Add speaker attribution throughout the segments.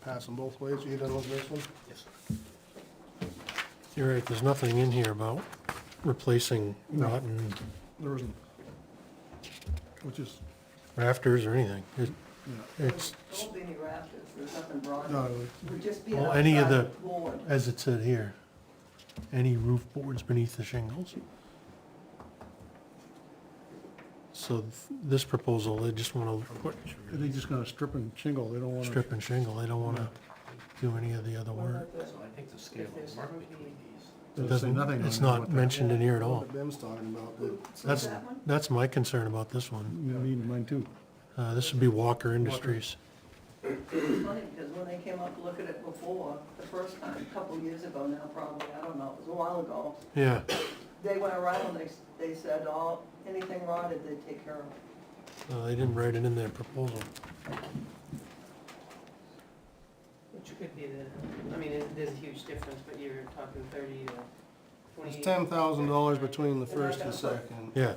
Speaker 1: pass them both ways. Are you done with this one? Yes.
Speaker 2: You're right, there's nothing in here about replacing rotten
Speaker 1: There isn't. Which is,
Speaker 2: rafters or anything. It,
Speaker 1: yeah,
Speaker 2: it's,
Speaker 3: Don't be any rafters, there's nothing
Speaker 1: no,
Speaker 3: broad.
Speaker 1: it-
Speaker 3: Would just be an
Speaker 2: Well, any of
Speaker 3: outside
Speaker 2: the-
Speaker 3: board.
Speaker 2: as it said here, any roof boards beneath the shingles. So th- this proposal, they just wanna put
Speaker 1: they're just gonna strip and shingle. They don't wanna.
Speaker 2: strip and shingle, they don't wanna do any of the other
Speaker 3: What
Speaker 2: work.
Speaker 3: about this
Speaker 4: So
Speaker 3: one?
Speaker 4: I think the scale
Speaker 3: If there's
Speaker 4: is marked
Speaker 3: roofing.
Speaker 4: between these.
Speaker 1: Doesn't say
Speaker 2: Doesn't-
Speaker 1: nothing on
Speaker 2: It's
Speaker 1: there what
Speaker 2: not
Speaker 1: that-
Speaker 2: mentioned in here at all.
Speaker 1: What Ben's talking about, but,
Speaker 3: So
Speaker 2: That's,
Speaker 3: that one?
Speaker 2: that's my concern about this one.
Speaker 1: yeah, me and mine too.
Speaker 2: Uh, this would be Walker Industries.
Speaker 3: It's funny, because when they came up to look at it before, the first time, a couple years ago now probably, I don't know, it was a while ago,
Speaker 2: Yeah,
Speaker 3: they went around, they, s- they said, all, anything rotted, they take care of it.
Speaker 2: uh, they didn't write it in their proposal.
Speaker 5: Which could be the, I mean, it- there's a huge difference, but you're talking thirty to twenty.
Speaker 1: It's ten thousand dollars between the first and second.
Speaker 2: Yeah,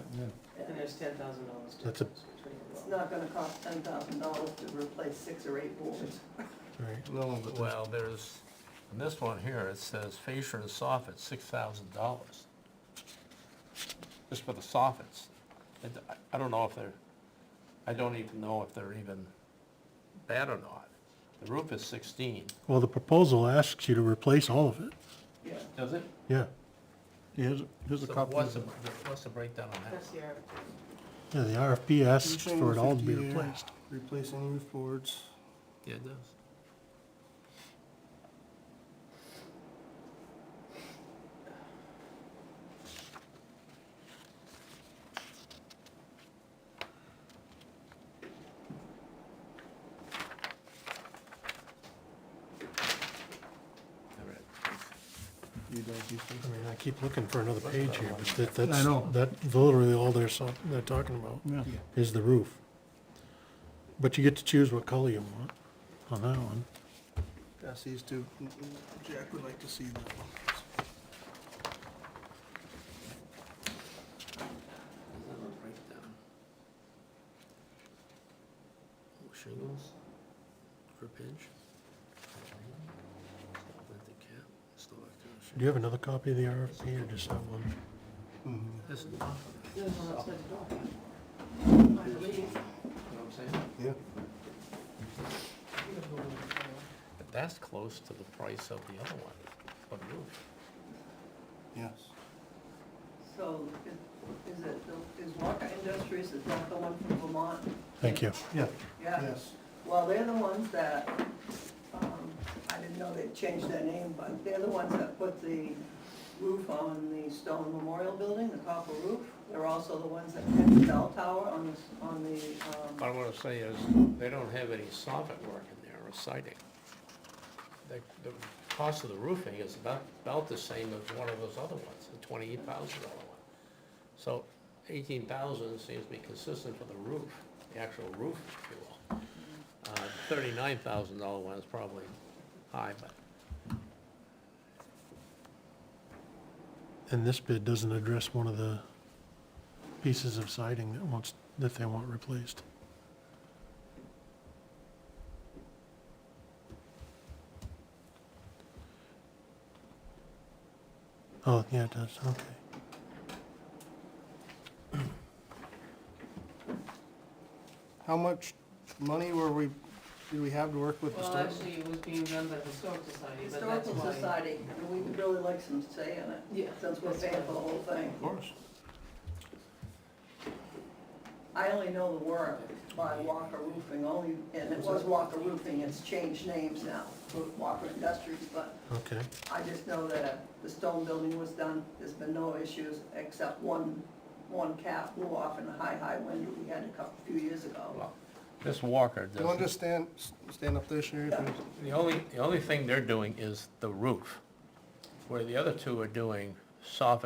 Speaker 5: And there's ten thousand dollars
Speaker 2: That's a-
Speaker 5: difference between them.
Speaker 3: It's not gonna cost ten thousand dollars to replace six or eight boards.
Speaker 2: right.
Speaker 1: No, but there's-
Speaker 4: Well, there's, in this one here, it says fascia and soffit, six thousand dollars. Just for the soffits. And I- I don't know if they're, I don't even know if they're even bad or not. The roof is sixteen.
Speaker 2: Well, the proposal asks you to replace all of it,
Speaker 3: Yeah,
Speaker 4: Does it?
Speaker 2: yeah.
Speaker 1: here's, here's a
Speaker 4: So
Speaker 1: copy.
Speaker 4: What's
Speaker 1: of
Speaker 4: the,
Speaker 1: it.
Speaker 4: what's the breakdown on that?
Speaker 5: That's the RFP.
Speaker 2: Yeah, the RFP asks
Speaker 1: Reaching
Speaker 2: for it all to be
Speaker 1: 50 year,
Speaker 2: replaced.
Speaker 1: Replacing roof boards.
Speaker 4: Yeah, it does. All right.
Speaker 1: You guys used to.
Speaker 2: I mean, I keep looking for another page here, but that, that's,
Speaker 1: I know.
Speaker 2: that's literally all they're, so- they're talking about,
Speaker 1: Yeah.
Speaker 2: is the roof. But you get to choose what color you want on that one.
Speaker 1: Pass these two. Jack would like to see that one.
Speaker 4: Another breakdown. Shingles, per pinch. Length cap, still
Speaker 2: Do you have another copy of the RFP or just that one?
Speaker 1: Mm-hmm.
Speaker 4: This is, you know
Speaker 3: there's one outside the door. I believe.
Speaker 4: what I'm saying?
Speaker 1: Yeah.
Speaker 4: But that's close to the price of the other one, for the roof.
Speaker 1: Yes.
Speaker 3: So is- is it, the- is Walker Industries, is that the one from Vermont?
Speaker 2: Thank you.
Speaker 1: Yeah.
Speaker 3: Yeah,
Speaker 1: Yes.
Speaker 3: well, they're the ones that, um, I didn't know they'd changed their name, but they're the ones that put the roof on the stone memorial building, the copper roof. They're also the ones that had the bell tower on the, s- on the,
Speaker 4: What
Speaker 3: um,
Speaker 4: I wanna say is, they don't have any soffit work in there or siding. The, the cost of the roofing is about, about the same as one of those other ones, the twenty-eight thousand dollar one. So eighteen thousand seems to be consistent for the roof, the actual roof, if you will. Uh, thirty-nine thousand dollar one is probably high, but
Speaker 2: And this bid doesn't address one of the pieces of siding that wants, that they want replaced. Oh, yeah, it does, okay.
Speaker 1: How much money were we, do we have to work with the
Speaker 5: Well,
Speaker 1: state?
Speaker 5: actually, it was being done by the Historic Society, but that's
Speaker 3: Historical
Speaker 5: why.
Speaker 3: Society, and we would really like some say in it,
Speaker 5: Yeah.
Speaker 3: since we're
Speaker 5: that's
Speaker 3: paying
Speaker 5: why.
Speaker 3: for the whole thing.
Speaker 1: Of course.
Speaker 3: I only know the work by Walker Roofing, only, and it was Walker Roofing, it's changed names now, to Walker Industries, but
Speaker 2: Okay,
Speaker 3: I just know that the stone building was done, there's been no issues, except one, one cap blew off in a high, high wind we had a couple, few years ago.
Speaker 4: well, this Walker
Speaker 1: You want to
Speaker 4: doesn't.
Speaker 1: just stand, stand up there, Sherry?
Speaker 3: Yeah.
Speaker 1: please?
Speaker 4: The only, the only thing they're doing is the roof, where the other two are doing soffit